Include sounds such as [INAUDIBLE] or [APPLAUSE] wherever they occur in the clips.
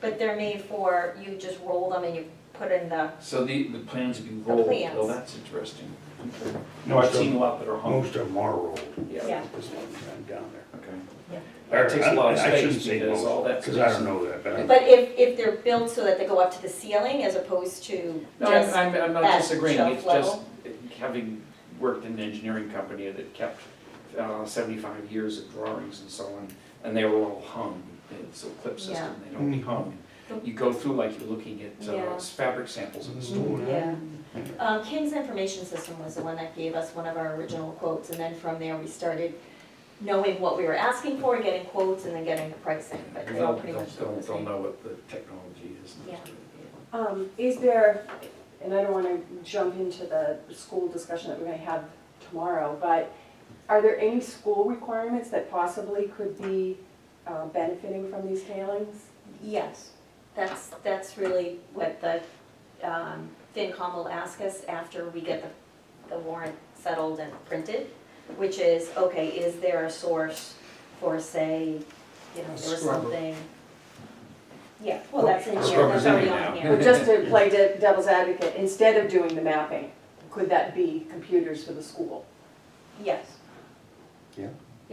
but they're made for, you just roll them and you put in the, So the, the plans would be rolled, plans. oh, that's interesting. No, I've Most seen of, a lot that are hung, most of them are rolled, yeah, yeah. this one time down there. okay. Yeah. That takes a lot of I- I shouldn't space say because most, all that. Cause I space- don't know that, but I- But if, if they're built so that they go up to the ceiling as opposed to No, I'm, just, I'm, I'm not that disagreeing, shelf it's just having worked in an engineering company that kept uh, seventy-five years of drawings and so on, and they were all hung, it's a clip Yeah. system, they don't be Mm. hung. You go through like you're looking at uh, Yeah. fabric samples in the store. Mm. yeah. Um, King's Information System was the one that gave us one of our original quotes, and then from there, we started knowing what we were asking for, getting quotes, and then getting the pricing, but they all They'll, pretty they'll, much look they'll the they'll same. know what the technology is. Yeah. Um, is there, and I don't wanna jump into the school discussion that we're gonna have tomorrow, but are there any school requirements that possibly could be uh, benefiting from these tailings? Yes, that's, that's really what the um, FinCom will ask us after we get the, the warrant settled and printed, which is, okay, is there a source for, say, you know, there was Scrubber. something? Yeah, well, that's in here, Scrubber's that's already in there on now. Or here. just to play de- devil's advocate, instead of doing the mapping, could that be computers for the school? Yes,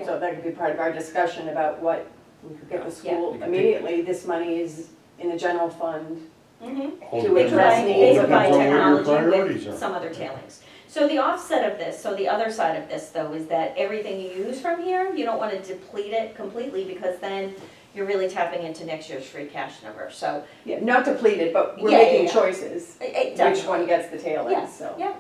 So that could be part of our discussion about what we could get the school Yeah. immediately. This money is in the general fund. mhm. All They They depends on- provide, provide- all they depends provide on where your technology priorities are. with some other tailings. So the offset of this, so the other side of this though, is that everything you use from here, you don't wanna deplete it completely because then you're really tapping into next year's free cash number, so. Yeah, not depleted, but we're Yeah, yeah, making yeah. choices, it- it does- which one gets the tailings, Yes, so. yeah.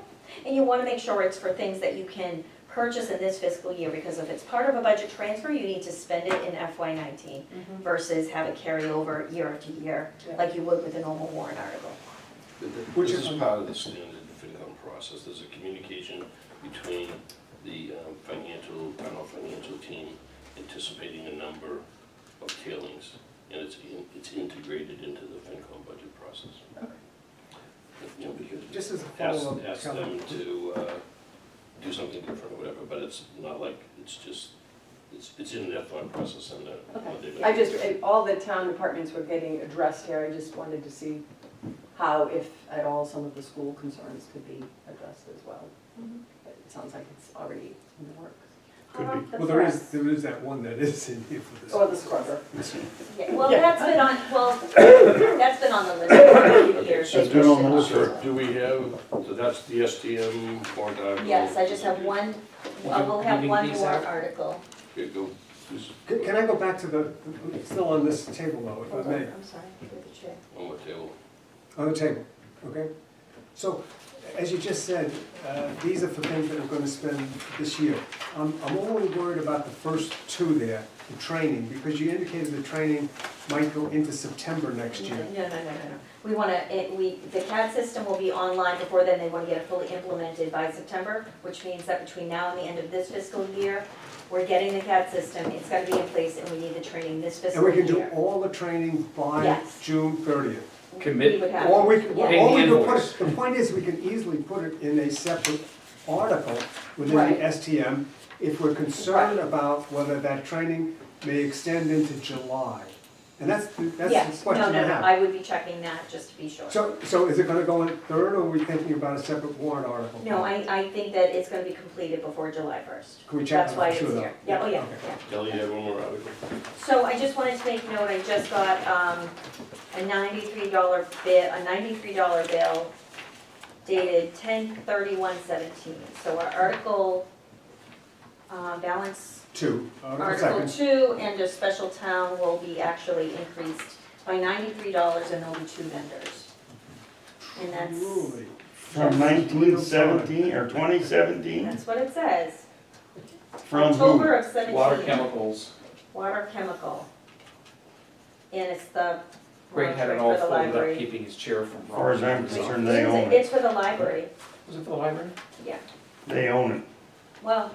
And you wanna make sure it's for things that you can purchase in this fiscal year because if it's part of a budget transfer, you need to spend it in FY nineteen versus have it carry over year after year, Mm-hmm. Yeah. like you would with a normal warrant article. Which is part of the standard FinCom process, there's a communication between the um, financial, town hall financial team anticipating a number of tailings, and it's, in- it's integrated into the FinCom budget process. You know, we could Just as a ask, follow-up, ask Kelly. them to uh, do something different or whatever, but it's not like, it's just, it's, it's in that thought process and that. what Okay, they're gonna I just, do. I- all the town departments were getting addressed here, I just wanted to see how, if at all, some of the school concerns could be addressed as well. Mhm. But it sounds like it's already in the works. Could Uh-huh, be. Well, there is, there is that one that is in here for this. Or Oh, the scrubber. Yeah, well, Yeah. that's been on, well, [COUGHS] that's been on the list for a few years. So They do it on pushed the it list, off. or- Do we have, so that's the STM warrant article? Yes, I just have one, uh, we'll have one more article. Okay, go, just Can can I go back to the, it's still on this table though, if Hold on, I may, I'm sorry, through the chair. on what table? on the table, okay? So, as you just said, uh, these are for things that we're gonna spend this year. I'm, I'm only worried about the first two there, the training, because you indicated the training might go into September next No, year. no, no, no, no. We wanna, it, we, the CAD system will be online before then, they wanna get it fully implemented by September, which means that between now and the end of this fiscal year, we're getting the CAD system, it's gotta be in place, and we need the training this And fiscal we year. can do all the training by Yes. June thirtieth. Commit- We would have to. Or we, could- Yeah. or we Pay the could put, invoice. it- the point is, we can easily put it in a separate article within Right. the STM if we're concerned about whether that training may extend into July. And that's, the- that's Yes, the no, no, question I no, have. I would be checking that, just to be sure. So, so is it gonna go in third, or are we thinking about a separate warrant article? No, I, I think that it's gonna be completed before July first. Can we check That's that why for it's sure, though? here. Yeah, oh, yeah, Okay. yeah. Kelly, you have one more article? So I just wanted to make note, I just got, um, a ninety-three dollar bill, a ninety-three dollar bill dated ten thirty-one seventeen. So our article, uh, balance, Two, article article second. two and a special town will be actually increased by ninety-three dollars and there'll be two vendors. And that's, Truly. From nineteen seventeen or twenty seventeen, that's what it says. from who? October of seventeen. Water chemicals, Water chemical. And it's the. Greg had it all for the folded up, library. keeping his chair from. Far as I'm falling. concerned. And they own it. It's for the library, Was it for the library? yeah. They own it. Well,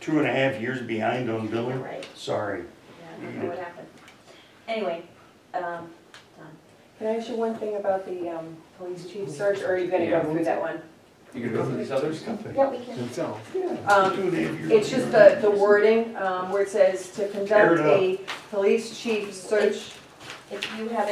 Two and a half years behind on you're billing. right, Sorry. yeah, I Mm-hmm. don't know what happened. Anyway, um, done. Can I ask you one thing about the um, police chief search, or are you gonna Yeah. go through that one? You could go through these others? Yeah, we can, So, Um, Two and a half years It's just the, behind. the wording, um, where it says to Tear it conduct up. a police chief search if you have